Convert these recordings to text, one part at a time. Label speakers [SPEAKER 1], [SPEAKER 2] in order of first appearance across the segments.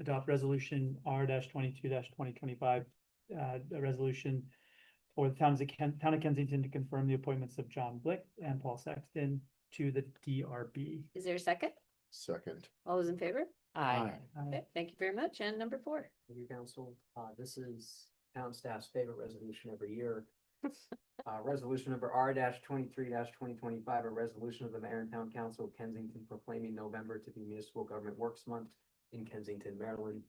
[SPEAKER 1] adopt resolution R twenty-two twenty twenty-five. Uh, a resolution for the towns of Ken, town of Kensington to confirm the appointments of John Blick and Paul Sexton to the DRB.
[SPEAKER 2] Is there a second?
[SPEAKER 3] Second.
[SPEAKER 2] All those in favor?
[SPEAKER 3] Aye.
[SPEAKER 1] Uh,
[SPEAKER 2] Okay, thank you very much. And number four,
[SPEAKER 4] Thank you, council. Uh, this is town staff's favorite resolution every year. Uh, resolution number R twenty-three twenty twenty-five, a resolution of the mayor and town council of Kensington proclaiming November to be municipal government works month in Kensington, Maryland.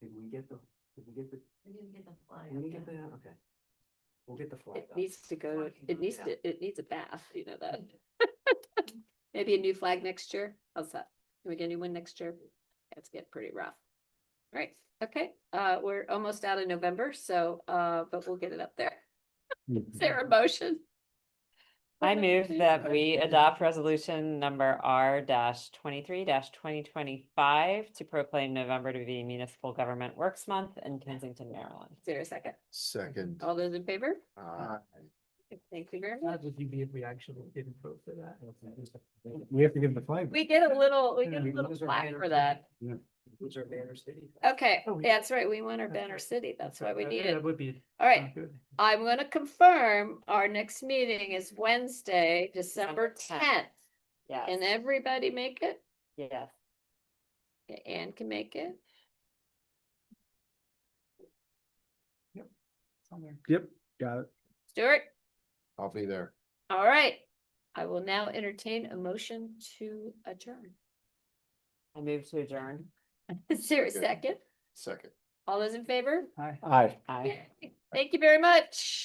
[SPEAKER 4] Did we get the, did we get the,
[SPEAKER 5] We didn't get the flyer.
[SPEAKER 4] did we get the, okay. We'll get the flag.
[SPEAKER 2] it needs to go,
[SPEAKER 5] Talking
[SPEAKER 2] it
[SPEAKER 5] about
[SPEAKER 2] needs
[SPEAKER 5] that.
[SPEAKER 2] to, it needs a bath, you know that. Maybe a new flag next year. How's that? Can we get a new one next year? It's getting pretty rough. All Right, okay, uh, we're almost out of November, so, uh, but we'll get it up there. Is there a motion?
[SPEAKER 6] I move that we adopt resolution number R twenty-three twenty twenty-five to proclaim November to be Municipal Government Works Month in Kensington, Maryland.
[SPEAKER 2] Is there a second?
[SPEAKER 3] Second. Uh,
[SPEAKER 2] All those in favor?
[SPEAKER 4] Uh,
[SPEAKER 3] Aye.
[SPEAKER 2] Thank you very much.
[SPEAKER 4] How would you be if we actually didn't vote for that?
[SPEAKER 7] We have to give them the flag.
[SPEAKER 2] We get a little, we get a
[SPEAKER 4] We
[SPEAKER 2] little
[SPEAKER 4] lose our
[SPEAKER 2] flag
[SPEAKER 4] banner
[SPEAKER 2] for
[SPEAKER 4] city.
[SPEAKER 2] that.
[SPEAKER 7] Yeah.
[SPEAKER 4] Lose our banner city.
[SPEAKER 2] Okay,
[SPEAKER 1] Oh, we-
[SPEAKER 2] that's right. We want our
[SPEAKER 1] That's
[SPEAKER 2] banner
[SPEAKER 1] right.
[SPEAKER 2] city. That's why we
[SPEAKER 1] that-
[SPEAKER 2] need
[SPEAKER 1] That
[SPEAKER 2] it.
[SPEAKER 1] would be.
[SPEAKER 2] All right,
[SPEAKER 1] not good.
[SPEAKER 2] I'm gonna confirm our next meeting is Wednesday, December
[SPEAKER 6] December 10th.
[SPEAKER 2] tenth. Can
[SPEAKER 6] Yes,
[SPEAKER 2] everybody make it?
[SPEAKER 6] yes.
[SPEAKER 2] Okay, Anne can make it.
[SPEAKER 1] Somewhere.
[SPEAKER 7] Yep, got it.
[SPEAKER 2] Stuart,
[SPEAKER 3] I'll be there.
[SPEAKER 2] all right. I will now entertain a motion to adjourn.
[SPEAKER 6] I move to adjourn.
[SPEAKER 2] Is there a
[SPEAKER 3] Good.
[SPEAKER 2] second?
[SPEAKER 3] Second.
[SPEAKER 2] All those in favor?
[SPEAKER 1] Hi.
[SPEAKER 7] Aye.
[SPEAKER 6] Aye.
[SPEAKER 2] Yay. Thank you very much.